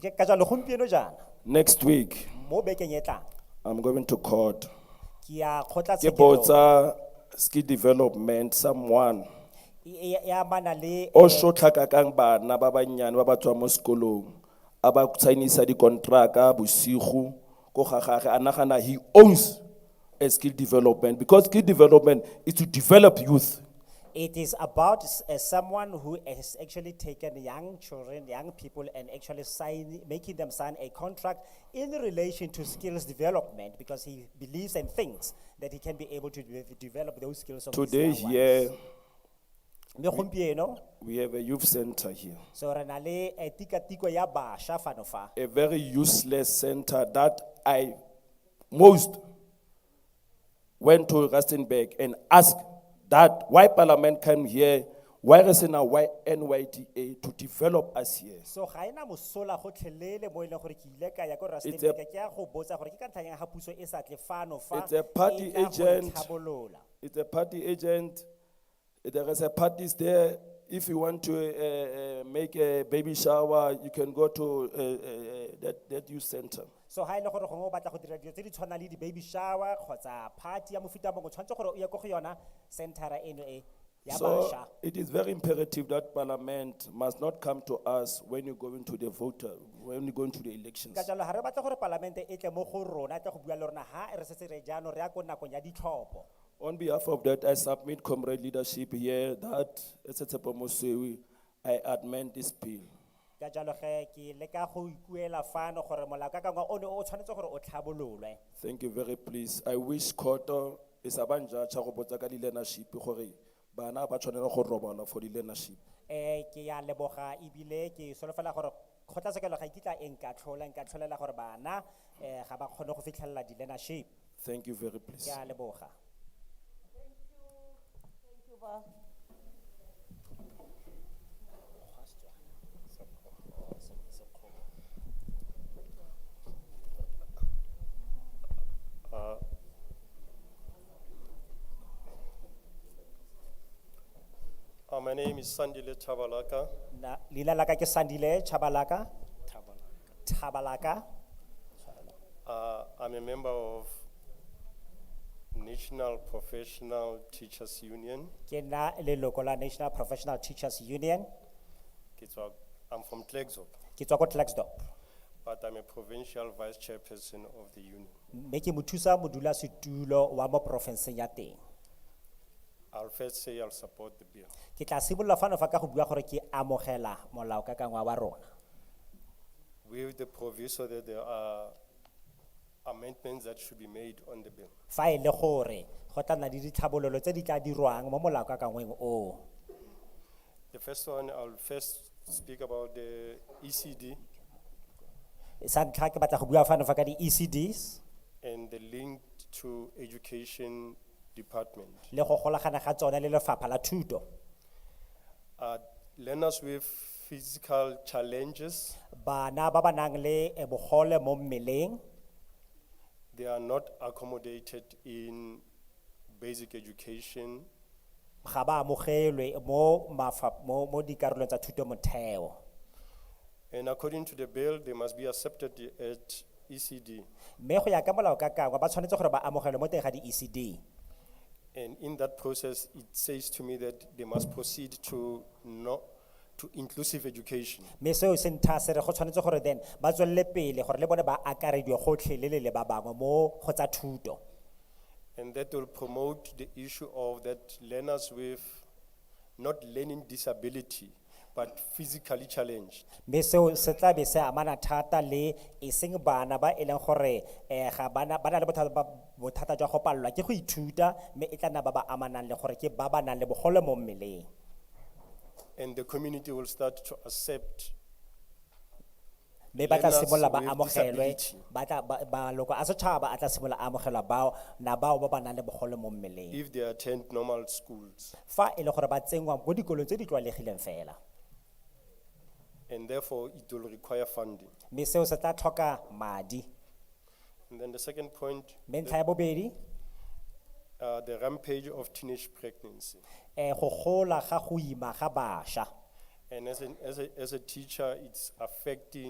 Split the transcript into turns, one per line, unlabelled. Ke- ka jwalo gompieno jaana
Next week,
mo bekeng e tlang
I'm going to court.
ke ya
Ke
kgotlatshekelo
botsa ski development someone
e e- e amana le
o shotlaka kang bana ba banyane ba ba tswang mo sekolong a ba sign-isa dikontraka bosigo ko ga gage a nagana he owns a skill development because skill development is to develop youth
It is about s- uh, someone who has actually taken young children, young people, and actually sign, making them sign a contract in relation to skills development because he believes and thinks that he can be able to de- develop those skills. Of his
today
young ones.
here
Mme gompieno,
we have a youth center here
so re na le, eh, tikatiko ya bašwa fano fa.
a very useless center that I most went to Rustenburg and asked that why Parliament came here, why Resena, why NYTA to develop us here.
So ga ena mosola gotlhelele mo e leng gore ke ile ka ya ko
It's
Rustenburg,
a-
ke ya go botsa gore ke ka ntlheng ya ga puso e sa tle fano fa,
It's a party
e tla go re
agent.
tlhabolola.
It's a party agent. There is a parties there. If you want to uh, uh, make a baby shower, you can go to uh, uh, uh, that, that youth center.
so ha ele gore gongwe o batla go dira dilo tse di tshwana le di-baby shower kgotsa party ya mofuta mongwe o tshwanetse gore o ye ko go yona centera eno e ya
So
bašwa
it is very imperative that parliament must not come to us when you go into the voter, when you go into the elections.
ka jalo ga re batla gore palamente e tle mo go rona e tle go bua le rona ha re setse re jaanong re ya ko nakong ya ditlhopho
On behalf of that, I submit comrade leadership here that, Esetepo Mossewi, I amend this bill.
ka jalo ge ke leka go ikuela fano gore molaokakangwa one o tshwanetse gore o tlhabololwe
Thank you very please. I wish Koto is abanja chakobota kali leadership, hori, bana ba tshwanela go robala for the leadership.
um ke ya leboga ebile ke solofela gore kgotlatshekelo ga ikitla e nka tlhola nka tlholela gore bana um ga ba kgone go fitlhelela di-learnership
Thank you very
ke
please.
a leboga
Uh, my name is Sandile Chabalaka.
Na, leina la ka ke Sandile Chabalaka. Chabalaka.
Uh, I'm a member of National Professional Teachers Union.
ke na leloko la National Professional Teachers Union,
Ke tswa- I'm from Klerksdorp,
ke tswa ko Klerksdorp.
but I'm a provincial vice chairperson of the union.
Mme ke mothusa modulasetulo wa mo porofenseng ya teng.
I'll first say I'll support the bill.
Ke tla simolola fano fa ka go bua gore ke amogela molaokakangwa wa rona.
With the proviso that there are amendments that should be made on the bill.
Fa e le gore go tla nna le ditlhabololo tse di tla dirwang mo molaokakangweng o.
The first one, I'll first speak about the E ECD
Sa ntlha ke batla go bua fano fa ka di ECDs
and the link to education department.
le go golagana ga tsone le lefapha la thuto.
uh, learners with physical challenges,
Bana ba ba nang le eh, bogole mo mmeleng
they are not accommodated in basic education
ga ba amogelwe mo mafa, mo, mo dikarolong tsa thuto motheo.
and according to the bill, they must be accepted at E ECD.
Mme go ya ka molao ka kangwa ba tshwanetse gore ba amogelwe mo teng ga di ECD.
And in that process, it says to me that they must proceed to no, to inclusive education.
Mme seo se ntha se re go tshwanetse gore then ba tswelele pele gore le bone ba akarediwe gotlhe le le le ba bangwe mo go tsa thuto.
And that will promote the issue of that learners with not learning disability, but physically challenged.
Mme seo se tla be se amana thata le eseng bana ba e leng gore eh ga bana ba na le bothata ba bothata jwa go palelwa ke go ithuta mme e tla nna ba ba amanang le gore ke ba ba nang le bogole mo mmeleng.
And the community will start to accept
mme ba tla
Learners
simolola ba
with
amogelwe
disability.
ba tla ba- maloko a setšhaba a tla simolola a amogelwa bao na bao ba ba nang le bogole mo mmeleng
if they attend normal schools.
fa e le gore ba tsenngwa mo dikolong tse di tlwaelegileng fela
And therefore, it will require funding.
mme seo se tla tlhoka madi
And then the second point,
mme ntlha ya bobedi
uh, the rampage of teenage pregnancy.
um go gola ga go ima ga bašwa
And as, an, as, a, as a teacher, it's affecting